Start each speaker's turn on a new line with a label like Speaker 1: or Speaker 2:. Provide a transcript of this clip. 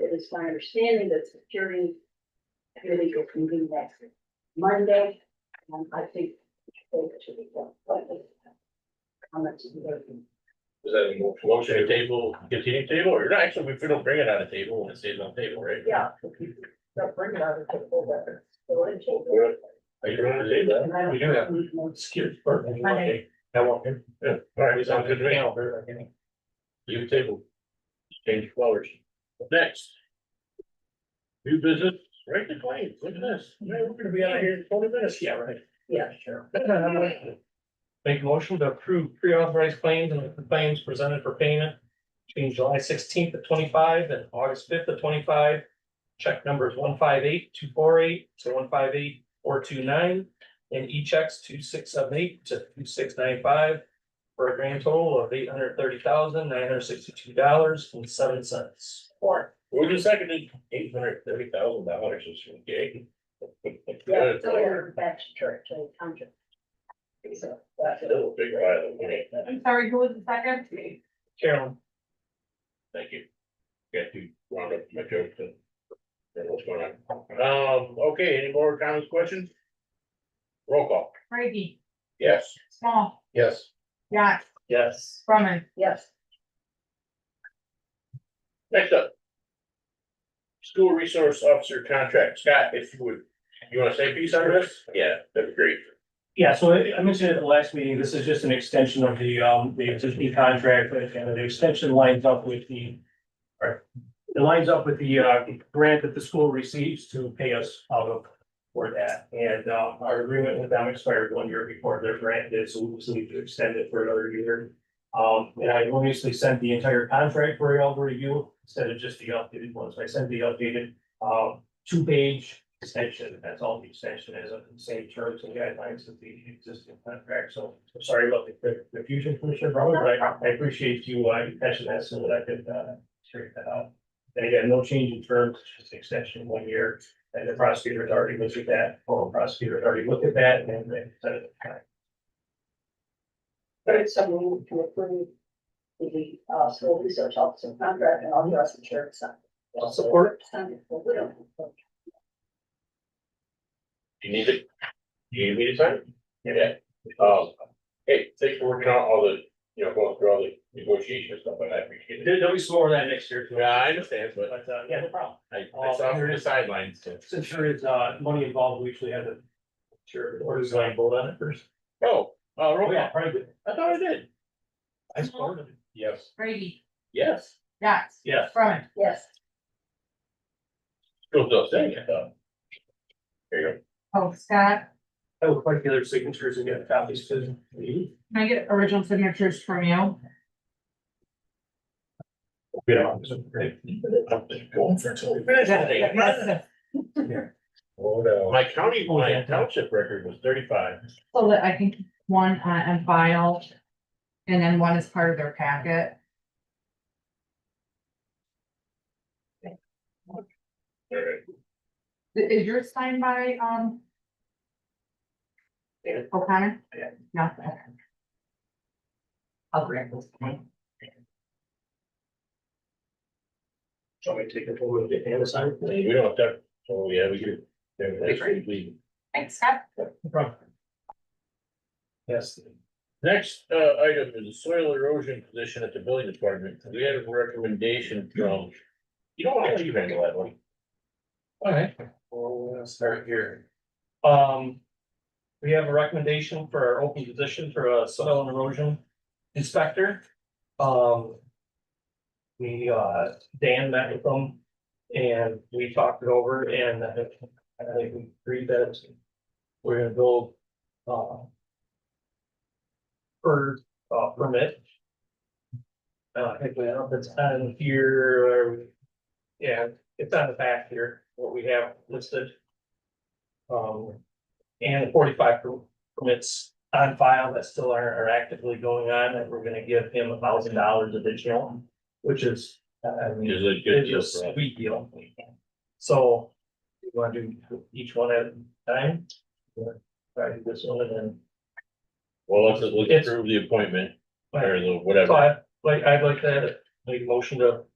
Speaker 1: it's my understanding that security committee will convene next Monday, and I think they should be done. but if- Comments. and voting.
Speaker 2: Is that a mo- motion to table, continue table, or not? actually, if we don't bring it on a table, when it stays on table, right?
Speaker 1: Yeah. They'll bring it out and take full weapons.
Speaker 2: Are you going to do that?
Speaker 1: We
Speaker 2: do have-
Speaker 1: have.
Speaker 2: Excuse. pardon me.
Speaker 1: Monday.
Speaker 2: I won't. hear. Yeah, all right, sounds good to me. You table. Change colors. Next. New business, right to claim, look at this, man, we're gonna be out of here in twenty minutes, yeah, right?
Speaker 1: Yeah, sure.
Speaker 3: Make a motion to approve pre-authorized claims and the claims presented for payment between July sixteenth of twenty-five and August fifth of twenty-five. Check numbers one five eight two four eight to one five eight four two nine and e-checks two six seven eight to two six nine five for a grand total of eight hundred thirty thousand nine hundred sixty-two dollars and seven cents.
Speaker 1: Or,
Speaker 2: We're just seconded eight hundred thirty thousand dollars, is okay.
Speaker 1: yeah, so we're back to church and country. So, that's it.
Speaker 2: Still a big pile of money.
Speaker 4: I'm sorry, who was the second?
Speaker 3: Carolyn,
Speaker 2: Thank you. Got you wound up my joke and. and what's going on? Um, okay, any more comments, questions? Roll call.
Speaker 4: Brady,
Speaker 2: Yes.
Speaker 4: Small,
Speaker 2: Yes.
Speaker 4: Yax,
Speaker 3: yes.
Speaker 4: Brumman,
Speaker 1: Yes,
Speaker 2: Next up. School resource officer contract. Scott, if you would, you wanna say a piece on this? Yeah, that'd be great.
Speaker 5: Yeah, so I I mentioned at the last meeting, this is just an extension of the, um, the existing contract, but uh, the extension lines up with the. or It lines up with the, uh, grant that the school receives to pay us out of for that. And, uh, our agreement with them expired one year before their grant did, so we just need to extend it for another year. Um, and I obviously sent the entire contract for y'all to review instead of just the updated ones. I sent the updated, uh, two-page extension, that's all the extension is, of the same terms and guidelines of the existing contract, so I'm sorry about the confusion, Commissioner Brown, but I, I appreciate you, uh, you catching that so that I could, uh, straighten that out. And again, no change in terms, just extension of one year, and the prosecutor's already looked at that, former prosecutor's already looked at that, and uh, they said it.
Speaker 1: there is some room to approve the, uh, school research officer contract and all the rest of the church. so-
Speaker 3: I'll support it.
Speaker 1: Sunday, but we don't have to.
Speaker 2: Do you need it? Do you need me to sign? it? Yeah. Um, hey, thanks for working on all the, you know, going through all the negotiation and stuff, and I appreciate it.
Speaker 3: There- There'll be some more of that next year. too.
Speaker 2: Yeah, I understand, but
Speaker 3: But, uh, yeah, no problem.
Speaker 2: I, I saw from the sidelines, so.
Speaker 3: Since there is, uh, money involved, we usually have the. Sure, or design vote on it first.
Speaker 2: Oh, uh, roll
Speaker 3: Oh,
Speaker 2: call.
Speaker 3: yeah, probably.
Speaker 2: I thought I did.
Speaker 3: I supported it.
Speaker 2: Yes.
Speaker 4: Brady,
Speaker 2: Yes.
Speaker 4: Yax,
Speaker 3: Yes.
Speaker 4: Brumman.
Speaker 1: Yes,
Speaker 2: Still does that, yeah. There you
Speaker 4: Oh, Scott,
Speaker 3: I would like the other signatures and get copies to me.
Speaker 4: can I get original signatures from you?
Speaker 3: Yeah.
Speaker 2: go. My county, my township record was thirty-five.
Speaker 4: So that I can keep one uh, and file, and then one is part of their packet.
Speaker 2: All right.
Speaker 4: I- Is yours signed by, um? O'Connor?
Speaker 3: Yeah.
Speaker 4: No. okay. I'll grab this one.
Speaker 3: Shall we take a photo of it and assign it?
Speaker 2: We don't have that, oh, yeah, we do. Yeah, that's
Speaker 3: Right.
Speaker 2: we-
Speaker 4: Thanks, Scott.
Speaker 3: No problem. Yes.
Speaker 2: Next, uh, item is the soil erosion position at the building department. We had a recommendation from. You don't want to leave handle that one.
Speaker 3: All right, well, we'll start here. Um, we have a recommendation for our open position for a soil and erosion inspector. Um. We, uh, Dan met with them and we talked it over and I think I think we agreed that it's- we're gonna go, uh. Per, uh, permit. Uh, I think we have, it's on here, or, yeah, it's on the back here, what we have listed. Um, and the forty-five per- permits on file that still are, are actively going on, and we're gonna give him a thousand dollars additional, which is, uh, I mean.
Speaker 2: Is it good?
Speaker 3: It's just
Speaker 2: for us?
Speaker 3: sweet deal. So, you wanna do each one at a time? Or Try to do this one and then,
Speaker 2: Well, let's, let's
Speaker 3: It's-
Speaker 2: approve the appointment
Speaker 3: Right.
Speaker 2: or the
Speaker 3: so
Speaker 2: whatever.
Speaker 3: I, like, I'd like to make a motion to